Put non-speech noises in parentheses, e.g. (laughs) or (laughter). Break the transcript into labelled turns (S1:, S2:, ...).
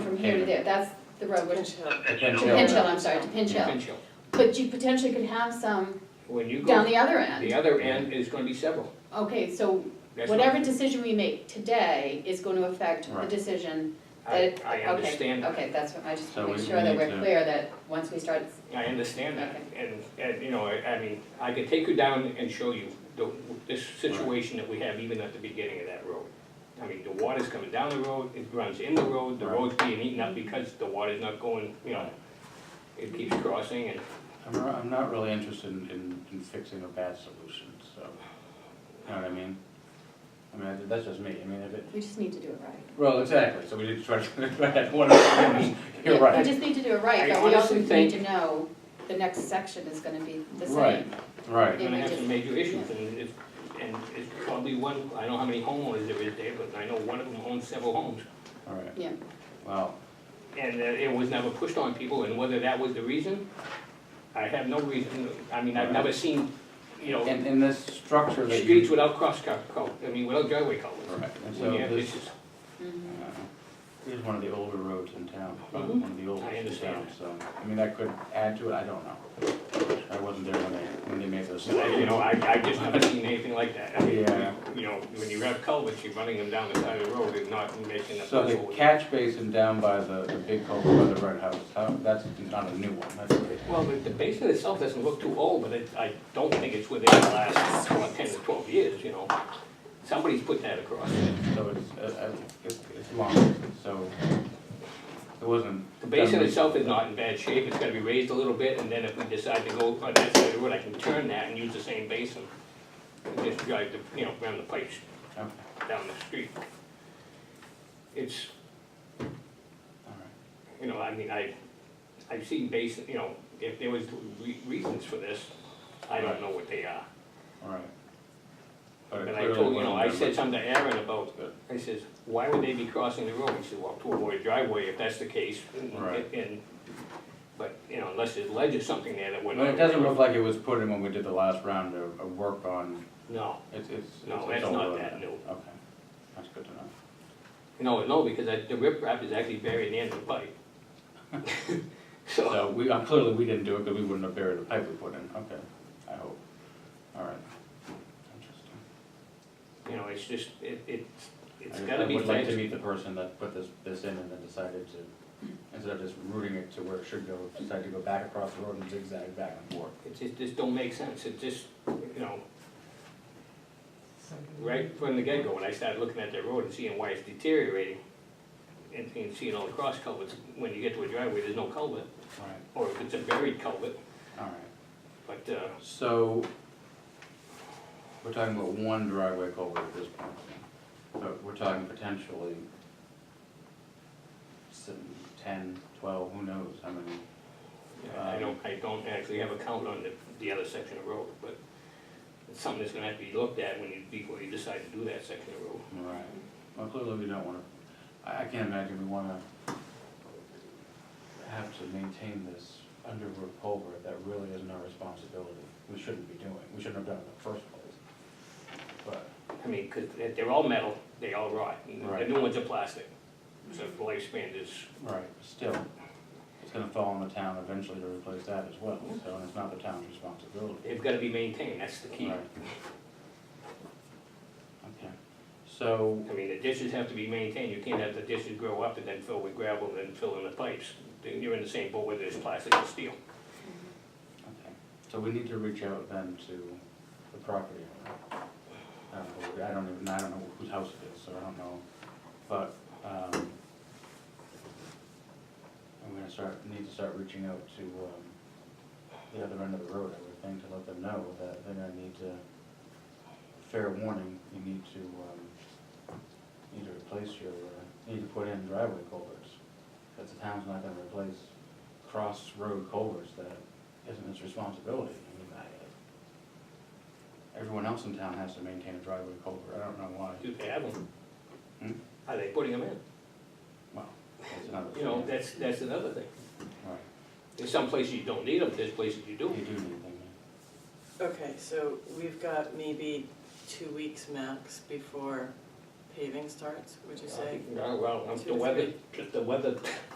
S1: here to
S2: Haven.
S1: there, that's the road, which,
S2: The
S1: to
S2: Pinch Hill.
S1: Pinch Hill, I'm sorry, to Pinch Hill.
S2: Pinch Hill.
S1: But you potentially could have some
S2: When you
S1: down
S2: go,
S1: the other
S2: the
S1: end.
S2: other end is gonna be several.
S1: Okay, so
S2: That's
S1: whatever
S2: what-
S1: decision we make today is going to affect the
S3: Right.
S1: decision
S2: I,
S1: that.
S2: I
S1: okay,
S2: understand that.
S1: Okay, that's what, I just
S3: So
S1: make
S3: we-
S1: sure
S3: we
S1: that
S3: need
S1: we're
S3: to-
S1: clear that once we start,
S2: I understand that, and, and, you know, I, I mean, I could take you down and show you the, this situation that we have even at the beginning of that road. I mean, the water's coming down the road, it runs in the road, the
S3: Right.
S2: road's being eaten up because the water's not going, you know, it keeps crossing and,
S3: I'm, not- I'm not really interested in, in- in fixing a bad solution, so, you know what I mean? I mean, I- that's just me, I mean, if it,
S1: we just need to do it right.
S3: well, exactly, so we did try to, (laughs) right, what I'm- you're
S1: Yeah, We
S3: right,
S1: just need to do it right,
S2: I
S1: but we also
S2: honestly
S1: need
S2: think-
S1: to know the next section is gonna be the same.
S3: Right.
S2: we're
S3: right,
S1: Yeah,
S2: gonna
S1: we
S2: have
S1: did.
S2: some major issues and it's, and it's probably one, I don't know how many homeowners there is there, but I know one of them owns several homes.
S3: all right.
S1: Yeah.
S3: Wow,
S2: And uh, it was never pushed on people, and whether that was the reason, I have no reason, I mean, I've never seen, you know,
S3: and, and this structure that you.
S2: streets without cross cut, col- I mean, without driveway
S3: All
S2: colors.
S3: right, and so
S2: When you have
S3: this,
S2: issues.
S3: uh,
S1: Mhm.
S3: here's one of the older roads in town, probably
S2: Mhm.
S3: one of the oldest
S2: I
S3: in town,
S2: understand.
S3: so, I mean, that could add to it, I don't know. I wasn't there when they, when they made those.
S2: I- You know, I, I just haven't seen anything like that. I mean,
S3: Yeah.
S2: You know, when you have culverts, you're running them down the side of the road and not making a
S3: So the
S2: puddle.
S3: catch basin down by the, the big hole by the red house, how- that's not a new one, that's what it-
S2: Well, the, the basin itself doesn't look too old, but it, I don't think it's within the last what, ten to twelve years, you know. Somebody's put that across.
S3: so it's, uh, uh, it's, it's long, so it wasn't.
S2: The basin
S3: done
S2: itself is not in bad shape, it's gonna be raised a little bit, and then if we decide to go on that side of the road, I can turn that and use the same basin. And just drive the, you know, run the pipes
S3: recently. Okay,
S2: down the street. It's,
S3: all right.
S2: you know, I mean, I, I've seen basin, you know, if there was re- reasons for this, I don't know what they are.
S3: All right. But it
S2: And I
S3: clearly
S2: told, you know, I
S3: wasn't
S2: said
S3: done
S2: something to Aaron about,
S3: Good.
S2: I says, why would they be crossing the road? He said, well, to avoid driveway, if that's the case. and-
S3: Right.
S2: And, but, you know, unless there's ledge or something there that
S3: by-
S2: would.
S3: But it doesn't look like it was put in when we did the last round of, of work on,
S2: No,
S3: it's, it's. it's-
S2: No,
S3: it's
S2: that's
S3: older
S2: not
S3: than
S2: that new.
S3: Okay, that's good to know.
S2: no, no, because I- the riprap is actually buried in the pipe. (laughs) So,
S3: So we, uh, clearly we didn't do it because we wouldn't have buried the pipe we put in, okay, I hope. All right, interesting.
S2: you know, it's just, it, it's, it's
S3: I-
S2: gotta be
S3: I would like
S2: fenced.
S3: to meet the person that put this, this in and then decided to, instead of just routing it to where it should go, decided to go back across the road and zigzag back and forth.
S2: It just, just don't make sense, it just, you know, right from the get-go, when I started looking at that road and seeing why it's deteriorating, and, and seeing all the cross culverts, when you get to a driveway, there's no culvert,
S3: All right,
S2: or if it's a buried culvert,
S3: all right,
S2: but, uh,
S3: so we're talking about one driveway culvert at this point, then. but we're talking potentially some, ten, twelve, who knows how many.
S2: Uh, I don't, I don't actually have a count on the, the other section of road, but it's something that's gonna have to be looked at when you, before you decide to do that section of road.
S3: All Right, well, clearly we don't wanna, I, I can't imagine we wanna have to maintain this underwood culvert that really isn't our responsibility. We shouldn't be doing, we shouldn't have done it in the first place. But,
S2: I mean, 'cause they're- they're all metal, they all rot, and the
S3: Right.
S2: new ones are plastic, so the lifespan is,
S3: right, still, it's gonna fall on the town eventually to replace that as well, so, and it's not the town's responsibility.
S2: they've gotta be maintained, that's the key.
S3: Right. Okay, so,
S2: I mean, the dishes have to be maintained, you can't have the dishes grow up and then fill with gravel and then fill in the pipes. Then You're in the same boat whether it's plastic or steel.
S3: Okay, so we need to reach out then to the property owner. I don't know, I don't even, I don't know whose house it is, so I don't know, but, um, I'm gonna start, need to start reaching out to, um, the other end of the road, I would think, to let them know that they're gonna need to, fair warning, you need to, um, need to replace your, uh, need to put in driveway culverts. Cause the town's not gonna replace cross-road culverts that isn't its responsibility. I mean, I- Everyone else in town has to maintain a driveway culvert, I don't know why.
S2: Do they have them?
S3: Hmm?
S2: Are they putting them in?
S3: Well, that's another
S2: You know,
S3: thing.
S2: that's, that's another thing.
S3: Right,
S2: There's some places you don't need them, there's places you do.
S3: you do need them,
S4: Okay, so we've got maybe two weeks max before paving starts, would you say?
S2: Well, well,
S4: Two
S2: the
S4: or
S2: weather,
S4: three.
S2: the weather